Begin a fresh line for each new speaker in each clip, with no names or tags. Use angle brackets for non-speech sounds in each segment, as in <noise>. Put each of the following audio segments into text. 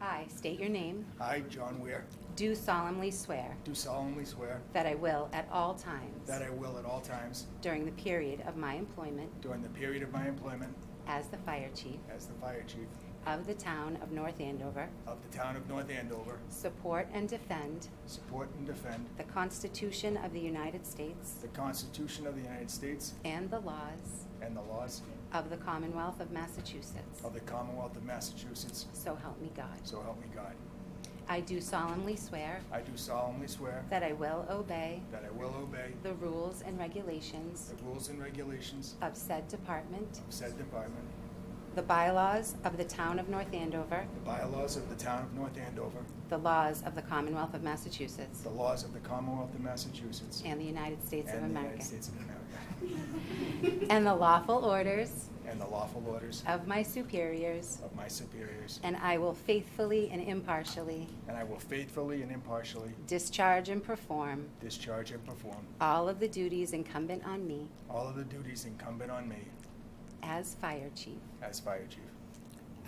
I state your name,
I, John Weir,
do solemnly swear
do solemnly swear
that I will at all times
that I will at all times
during the period of my employment
during the period of my employment
as the fire chief
as the fire chief
of the town of North Andover,
of the town of North Andover,
support and defend
support and defend
the Constitution of the United States
the Constitution of the United States
and the laws
and the laws
of the Commonwealth of Massachusetts.
of the Commonwealth of Massachusetts,
So help me God.
so help me God.
I do solemnly swear
I do solemnly swear
that I will obey
that I will obey
the rules and regulations
the rules and regulations
of said department,
of said department,
the bylaws of the town of North Andover,
the bylaws of the town of North Andover,
the laws of the Commonwealth of Massachusetts,
the laws of the Commonwealth of Massachusetts,
and the United States of
and the United
America,
States of America,
and the lawful orders
and the lawful orders
of my superiors,
of my superiors,
and I will faithfully and impartially
and I will faithfully and impartially
discharge and perform
discharge and perform
all of the duties incumbent on me
all of the duties incumbent on me
as fire chief
as Fire Chief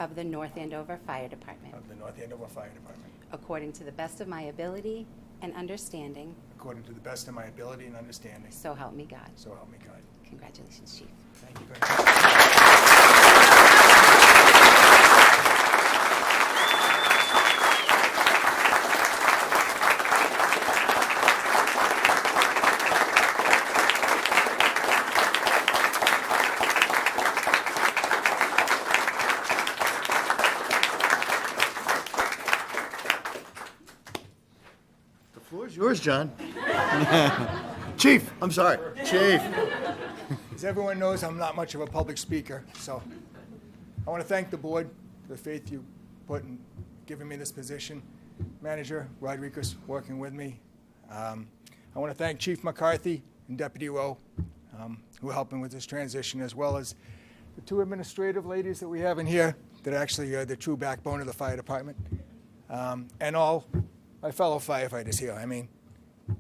of the North Andover Fire Department,
of the North Andover Fire Department,
according to the best of my ability and understanding,
according to the best of my ability and understanding,
so help me God.
so help me God.
Congratulations, Chief.
Thank you very much.
The floor is yours, John. <laughs> Chief, I'm sorry. Chief.
As everyone knows, I'm not much of a public speaker, so I want to thank the board for the faith you put in giving me this position. Manager Rodriguez working with me. Um, I want to thank Chief McCarthy and Deputy Rowe um, who are helping with this transition, as well as the two administrative ladies that we have in here that actually are the true backbone of the fire department, um, and all my fellow firefighters here. I mean,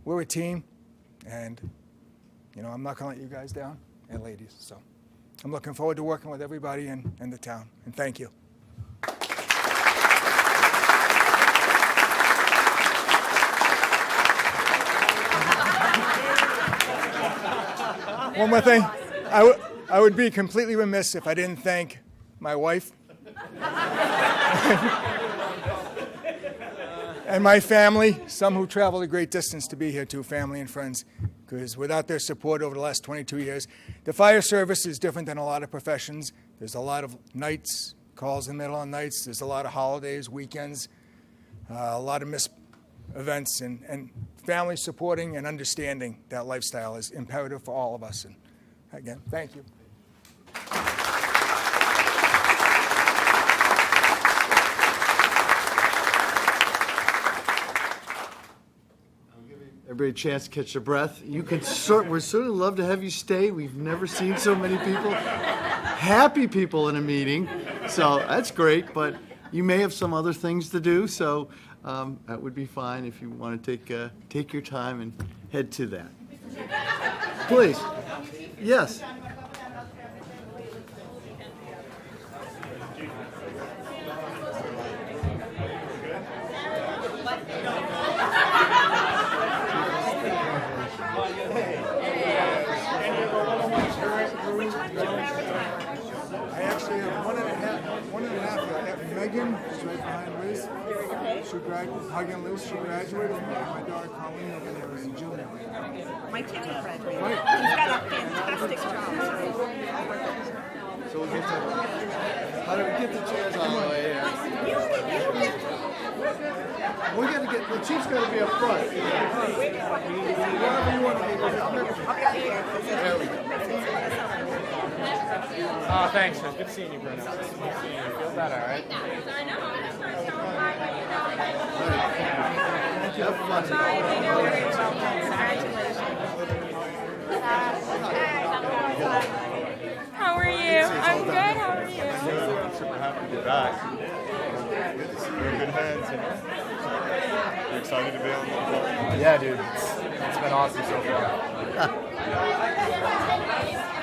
we're a team, and you know, I'm not going to let you guys down and ladies. So I'm looking forward to working with everybody in, in the town. And thank you. One more thing. I would- I would be completely remiss if I didn't thank my wife and my family, some who traveled a great distance to be here too, family and friends, because without their support over the last 22 years, the fire service is different than a lot of professions. There's a lot of nights, calls in the middle of nights, there's a lot of holidays, weekends, uh, a lot of missed events, and, and family supporting and understanding that lifestyle is imperative for all of us. And again, thank you.
Everybody a chance to catch their breath. You can sort, we're certainly love to have you stay. We've never seen so many people, happy people in a meeting. So that's great, but you may have some other things to do, so um, that would be fine if you want to take, uh, take your time and head to that. Please. Yes.
I actually have one and a half, one and a half. I have Megan, who's right behind Liz. She graduated, hugging Liz, she graduated. And my daughter Colleen over there is a junior.
My kid will graduate. He's got a fantastic job.
So we'll get to, how do we get the chairs Oh, all the way here?
You get, you get.
We're gonna get, the chief's gonna be up front. Wherever you want to be. There we go.
Oh, thanks, man. Good seeing you, Bruno. Good seeing you. Feel better, right?
Have fun.
How are you? I'm good. How are you?
Super happy to be back. We're in good hands, you know. You're excited to be on the
Yeah, dude. It's, it's been awesome so far.